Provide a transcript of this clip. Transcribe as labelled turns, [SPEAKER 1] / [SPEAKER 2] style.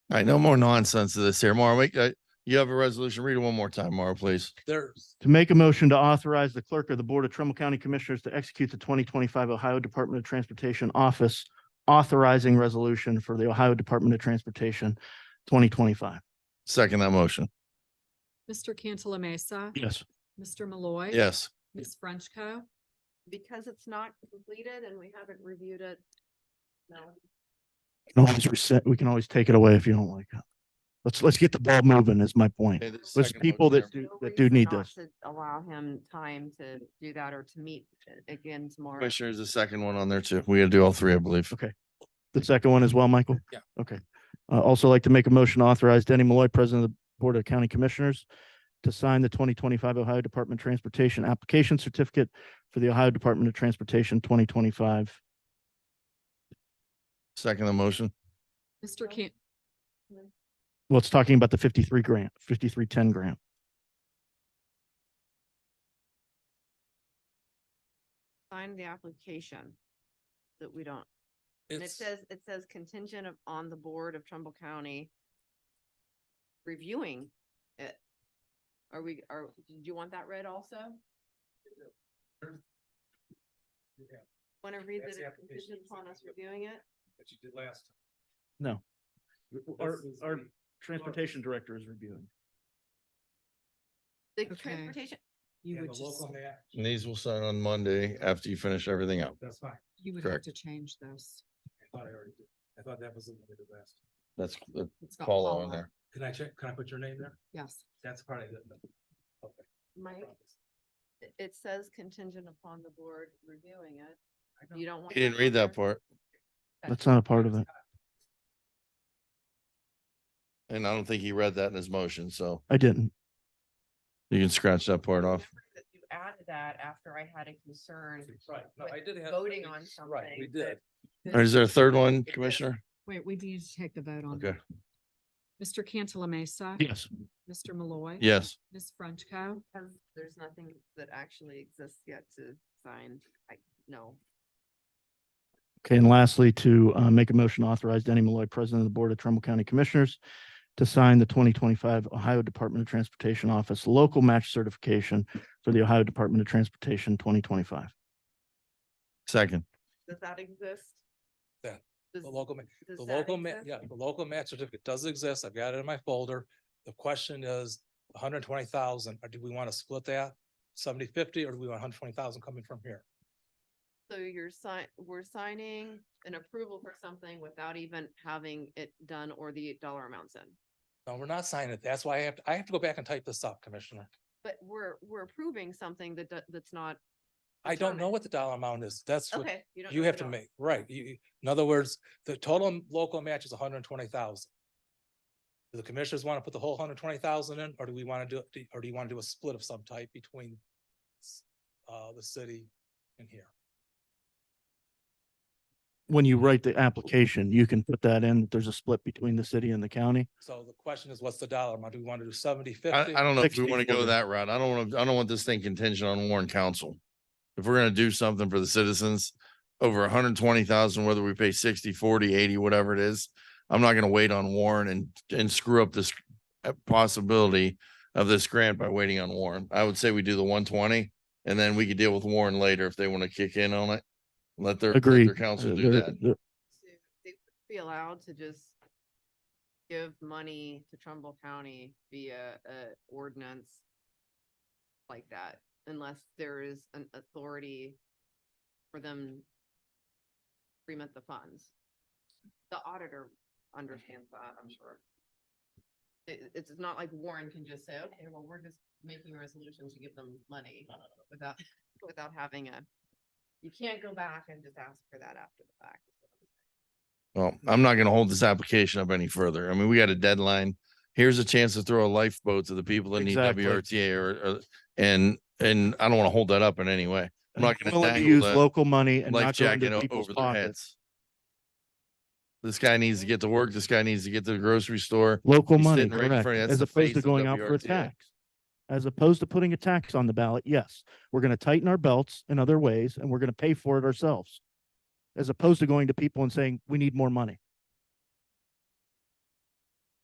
[SPEAKER 1] All right, no more nonsense of this here. Mara, wait, uh, you have a resolution. Read it one more time, Mara, please.
[SPEAKER 2] There's,
[SPEAKER 3] To make a motion to authorize the clerk of the Board of Trumbull County Commissioners to execute the twenty twenty-five Ohio Department of Transportation Office authorizing resolution for the Ohio Department of Transportation twenty twenty-five.
[SPEAKER 1] Second that motion.
[SPEAKER 4] Mr. Cantala Mesa.
[SPEAKER 3] Yes.
[SPEAKER 4] Mr. Malloy.
[SPEAKER 1] Yes.
[SPEAKER 4] Ms. Frenchco.
[SPEAKER 5] because it's not completed and we haven't reviewed it. No.
[SPEAKER 3] We can always reset, we can always take it away if you don't like it. Let's, let's get the ball moving is my point.
[SPEAKER 1] Okay, the
[SPEAKER 3] There's
[SPEAKER 1] second
[SPEAKER 3] people
[SPEAKER 1] motion
[SPEAKER 3] that do, that do need this.
[SPEAKER 5] Allow him time to do that or to meet again
[SPEAKER 1] there.
[SPEAKER 5] tomorrow.
[SPEAKER 1] Commissioner, there's a second one on there too. We gotta do all three, I believe.
[SPEAKER 3] The second one as well, Michael?
[SPEAKER 2] Yeah.
[SPEAKER 3] Okay. Uh, also like to make a motion to authorize Denny Malloy, President of the Board of County Commissioners, to sign the twenty twenty-five Ohio Department of Transportation Application Certificate for the Ohio Department of Transportation twenty twenty-five.
[SPEAKER 1] Second the motion.
[SPEAKER 4] Mr. Can,
[SPEAKER 3] Well, it's talking about the fifty-three grant, fifty-three ten grant.
[SPEAKER 5] Sign the application that we don't, and it
[SPEAKER 2] it's,
[SPEAKER 5] says, it says contingent of, on the board of Trumbull County reviewing it. Are we, are, do you want that read also?
[SPEAKER 2] Yeah.
[SPEAKER 5] Want to read
[SPEAKER 2] That's
[SPEAKER 5] that
[SPEAKER 2] the
[SPEAKER 5] it's
[SPEAKER 2] application.
[SPEAKER 5] contingent upon us reviewing it?
[SPEAKER 2] that you did last.
[SPEAKER 3] No. Our,
[SPEAKER 2] This is
[SPEAKER 3] our
[SPEAKER 2] the-
[SPEAKER 3] transportation director is reviewing.
[SPEAKER 5] The
[SPEAKER 4] Okay.
[SPEAKER 5] transportation,
[SPEAKER 6] You
[SPEAKER 2] And
[SPEAKER 6] would
[SPEAKER 2] the
[SPEAKER 6] just,
[SPEAKER 2] local map,
[SPEAKER 1] And these will sign on Monday after you finish everything up.
[SPEAKER 2] that's fine.
[SPEAKER 6] you would have
[SPEAKER 1] correct.
[SPEAKER 6] to change this.
[SPEAKER 2] I thought I already did. I thought that was in the last.
[SPEAKER 1] That's the
[SPEAKER 6] It's got
[SPEAKER 1] follow on
[SPEAKER 6] follow-up.
[SPEAKER 1] there.
[SPEAKER 2] Can I check, can I put your name there?
[SPEAKER 6] Yes.
[SPEAKER 2] That's part of it. Okay.
[SPEAKER 5] Mike, it- it says contingent upon the board reviewing it.
[SPEAKER 2] I
[SPEAKER 5] You don't want.
[SPEAKER 1] You didn't read
[SPEAKER 5] on
[SPEAKER 1] that
[SPEAKER 5] there?
[SPEAKER 1] part.
[SPEAKER 3] That's not a part of it.
[SPEAKER 1] And I don't think he read that in his motion, so
[SPEAKER 3] I didn't.
[SPEAKER 1] you can scratch that part off.
[SPEAKER 5] Remember that You added that after I had a concern.
[SPEAKER 2] Right, no,
[SPEAKER 5] with
[SPEAKER 2] I did have.
[SPEAKER 5] Voting on
[SPEAKER 2] Right, we
[SPEAKER 5] something.
[SPEAKER 2] did.
[SPEAKER 1] All right, Is there a third one, Commissioner?
[SPEAKER 6] Wait, we need to take the vote on.
[SPEAKER 1] Okay,
[SPEAKER 6] that.
[SPEAKER 4] Mr. Cantala Mesa.
[SPEAKER 3] Yes.
[SPEAKER 4] Mr. Malloy.
[SPEAKER 1] yes.
[SPEAKER 4] Ms. Frenchco.
[SPEAKER 5] Because there's nothing that actually exists yet to sign. I, no.
[SPEAKER 3] Okay, and lastly, to uh, make a motion to authorize Denny Malloy, President of the Board of Trumbull County Commissioners, to sign the twenty twenty-five Ohio Department of Transportation Office Local Match Certification for the Ohio Department of Transportation twenty twenty-five.
[SPEAKER 1] Second,
[SPEAKER 5] Does that exist?
[SPEAKER 2] Yeah,
[SPEAKER 5] Does,
[SPEAKER 2] The local, ma-
[SPEAKER 5] does
[SPEAKER 2] the
[SPEAKER 5] that
[SPEAKER 2] local, ma-
[SPEAKER 5] exist?
[SPEAKER 2] yeah, the local match certificate does exist. I've got it in my folder. The question is hundred and twenty thousand, or do we want to split that? 70 50, or do we want hundred and twenty thousand coming from here?
[SPEAKER 5] So you're sign, we're signing an approval for something without even having it done or the dollar amounts in.
[SPEAKER 2] No, we're not signing it. That's why I have, to. I have to go back and type this up, Commissioner.
[SPEAKER 5] But we're, we're approving something that, do- that's not.
[SPEAKER 2] I don't know
[SPEAKER 5] determined.
[SPEAKER 2] what the dollar amount is. That's what
[SPEAKER 5] Okay. don't
[SPEAKER 2] you
[SPEAKER 5] know
[SPEAKER 2] have to
[SPEAKER 5] the dollar.
[SPEAKER 2] make, right? You, you- in other words, the total m- local match is hundred and twenty thousand. Do the commissioners want to put the whole hundred and twenty thousand in, or do we want to do, do- or do you want to do a split of some type between s- uh, the city and here?
[SPEAKER 3] When you write the application, you can put that in, that there's a split between the city and the county.
[SPEAKER 2] So the question is, what's the dollar amount? Do we want to do seventy,
[SPEAKER 1] I,
[SPEAKER 2] fifty?
[SPEAKER 1] I don't know if we want to go
[SPEAKER 3] 64.
[SPEAKER 1] that route. I don't want to, I don't want this thing contingent on Warren Council. If we're gonna do something for the citizens, over hundred and twenty thousand, whether we pay 60, 40, 80, whatever it is, I'm not gonna wait on Warren and, and screw up this uh, possibility of this grant by waiting on Warren. I would say we do the one twenty, and then we could deal with Warren later if they want to kick in on it. Let their, let
[SPEAKER 3] Agreed.
[SPEAKER 1] their council
[SPEAKER 3] Uh,
[SPEAKER 1] do
[SPEAKER 3] there-
[SPEAKER 1] that.
[SPEAKER 3] there-
[SPEAKER 5] to- they would be allowed to just give money to Trumbull County via a ordinance like that, unless there is an authority for them to remit the funds. The auditor understands that, I'm sure. It, it's not like Warren can just say, okay, well, we're just making a resolution to give them money without, without having a, you can't go back and just ask for that after the fact. is what I'm saying.
[SPEAKER 1] Well, I'm not gonna hold this application up any further. I mean, we got a deadline. Here's a chance to throw a lifeboat to the people that need
[SPEAKER 3] Exactly.
[SPEAKER 1] WRTA or, or, and, and I don't want to hold that up in any way. I'm not gonna
[SPEAKER 3] willing to
[SPEAKER 1] dangle
[SPEAKER 3] use
[SPEAKER 1] that
[SPEAKER 3] local money and
[SPEAKER 1] Life
[SPEAKER 3] not go into
[SPEAKER 1] jacket o-
[SPEAKER 3] people's
[SPEAKER 1] over their
[SPEAKER 3] pockets.
[SPEAKER 1] heads. This guy needs to get to work. This guy needs to get to the grocery store.
[SPEAKER 3] Local
[SPEAKER 1] He's
[SPEAKER 3] money,
[SPEAKER 1] sitting right in
[SPEAKER 3] correct,
[SPEAKER 1] front of you. That's
[SPEAKER 3] as
[SPEAKER 1] the
[SPEAKER 3] opposed
[SPEAKER 1] face
[SPEAKER 3] to
[SPEAKER 1] of
[SPEAKER 3] going out for a
[SPEAKER 1] WRTA.
[SPEAKER 3] tax. As opposed to putting a tax on the ballot, yes, we're gonna tighten our belts in other ways and we're gonna pay for it ourselves. As opposed to going to people and saying, we need more money.